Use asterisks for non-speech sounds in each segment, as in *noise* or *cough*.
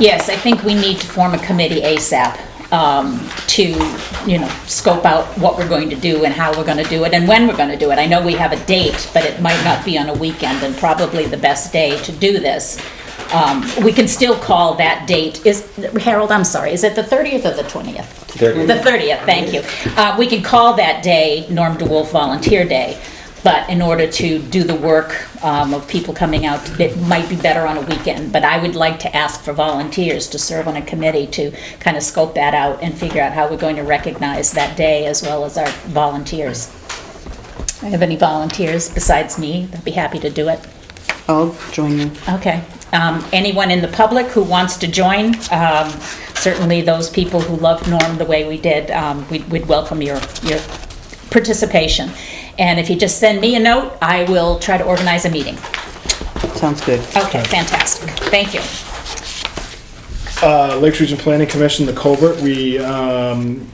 Yes, I think we need to form a committee ASAP um, to, you know, scope out what we're going to do and how we're going to do it and when we're going to do it. I know we have a date, but it might not be on a weekend and probably the best day to do this. Um, We can still call that date, is, Harold, I'm sorry, is it the 30th or the 20th? The 30th, thank you. Uh, We can call that day Norm DeWolf Volunteer Day, but in order to do the work um, of people coming out, it might be better on a weekend. But I would like to ask for volunteers to serve on a committee to kind of scope that out and figure out how we're going to recognize that day as well as our volunteers. If you have any volunteers besides me, they'd be happy to do it. I'll join you. Okay. Um, Anyone in the public who wants to join, um, certainly those people who love Norm the way we did, um, we'd we'd welcome your, your participation. And if you just send me a note, I will try to organize a meeting. Sounds good. Okay, fantastic. Thank you. Uh, Lakes Region Planning Commission, the culvert, we, um,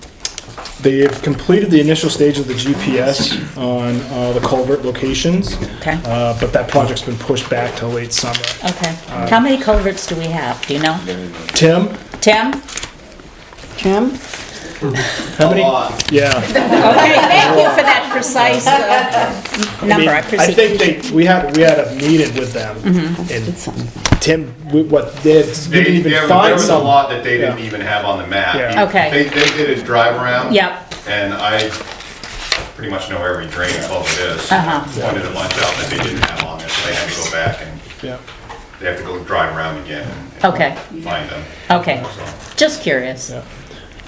they have completed the initial stage of the GPS on, uh, the culvert locations. Okay. Uh, but that project's been pushed back till late summer. Okay. How many culverts do we have? Do you know? Tim, Tim? Jim? how many? *laughs* Yeah. Okay, thank you for that precise uh, *laughs* I mean, number. I I think appreciate they, we had, we had a meeting with them Mm-hmm. and Something. Tim, we- what, they, we They, didn't there even was- there find was a some. lot that they didn't even have on the map. Yeah. Okay. They, they did a drive around. Yep. And I pretty much know every drain and culvert is. Uh-huh. Pointed a bunch out that they didn't have on there, so they had to go back and Yeah. they have to go drive around again. and Okay, Find them. okay. So, Just curious. Yeah.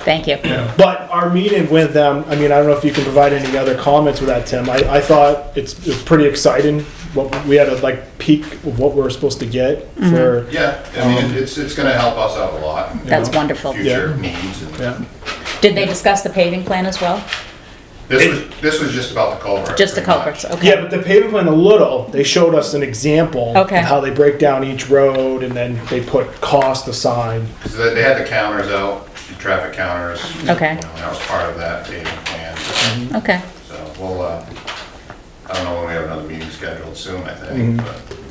Thank you. But our meeting with them, I mean, I don't know if you can provide any other comments with that, Tim. I, I thought it's, it's pretty exciting. What, we had a like peak of what we were supposed to get for, Yeah, I mean, it's, it's gonna help us out a lot. in That's wonderful. Future needs and, Um, yeah. Did they discuss the paving plan as well? this was, this was just about the culvert. Just the pretty much. culverts, okay. Yeah, but the pavement plan a little, they showed us an example Okay. of how they break down each road and then they put cost aside. So they- they had the counters out, the traffic counters. Okay. You know, That was part of that paving plan. Mm-hmm. Okay, So we'll, uh, I don't know when we have another meeting scheduled soon, I think, but. well,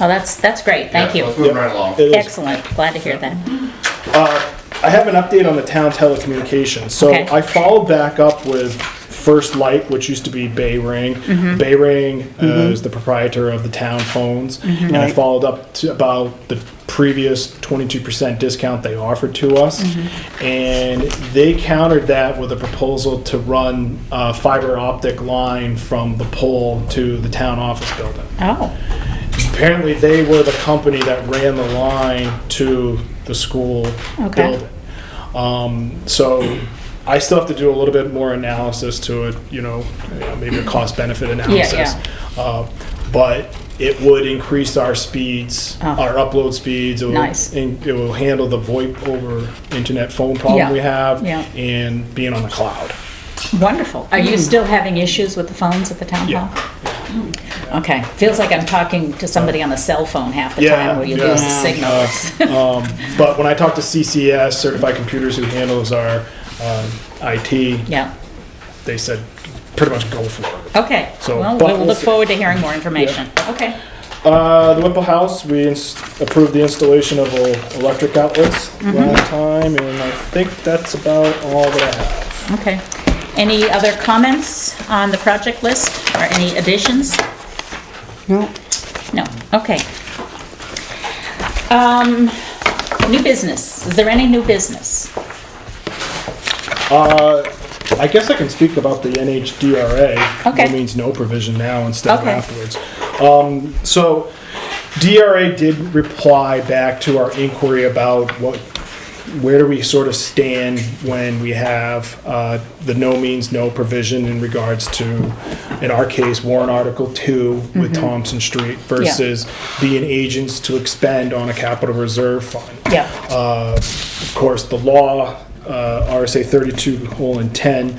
Oh, that's, that's great, thank Yeah, you. Let's move right along. It is- Excellent, glad to hear that. I have an update on the town telecommunications. So Okay. I followed back up with First Light, which used to be Bay Ring. Bay Ring uh, is the proprietor of the town phones, and I Right. followed up to about the previous 22% discount they offered to us, and they countered that with a proposal to run a fiber optic line from the pole to the town office building Oh, apparently they were the company that ran the line to the school Okay. building. Um, so I still have to do a little bit more analysis to it, you know, uh, maybe a cost benefit analysis. Uh, but it would increase our speeds, Oh. our upload speeds. It will, Nice. and it will handle the VoIP over internet phone problem Yeah. we have Yeah. and being on the cloud. wonderful. Are you still having issues with the phones at the town Yeah. hall? Okay, feels like I'm talking to somebody on a cell phone half the Yeah, time where you lose the yeah. signal. Um, But when I talk to CCS, Certified Computers, who handles our um, IT, Yeah, they said pretty much go for it. okay. So, Well, but we'll we'll look see. forward to hearing more information. Okay, Uh, the Whipple House, we ins- approved the installation of el- electric outlets last time, and I think that's about all that I have. okay. Any other comments on the project list or any additions? No, No, okay. Um, New business, is there any new business? Uh, I guess I can speak about the NHDRA. Okay. It means no provision now instead of Okay. afterwards. Um, so DRA did reply back to our inquiry about what, where do we sort of stand when we have uh, the no means no provision in regards to, in our case, warrant Article 2 Mm-hmm. with Thompson Street versus being agents to expend on a capital reserve fund. Yeah. Uh, Of course, the law, uh, RSA 32, whole and 10,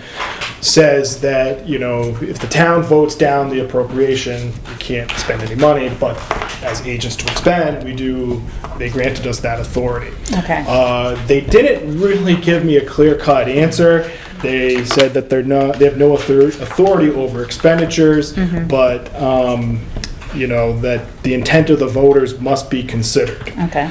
says that, you know, if the town votes down the appropriation, you can't spend any money, but as agents to expend, we do, they granted us that authority. Okay. Uh, They didn't really give me a clear-cut answer. They said that they're not, they have no author- authority over expenditures, but um, you know, that the intent of the voters must be considered. Okay.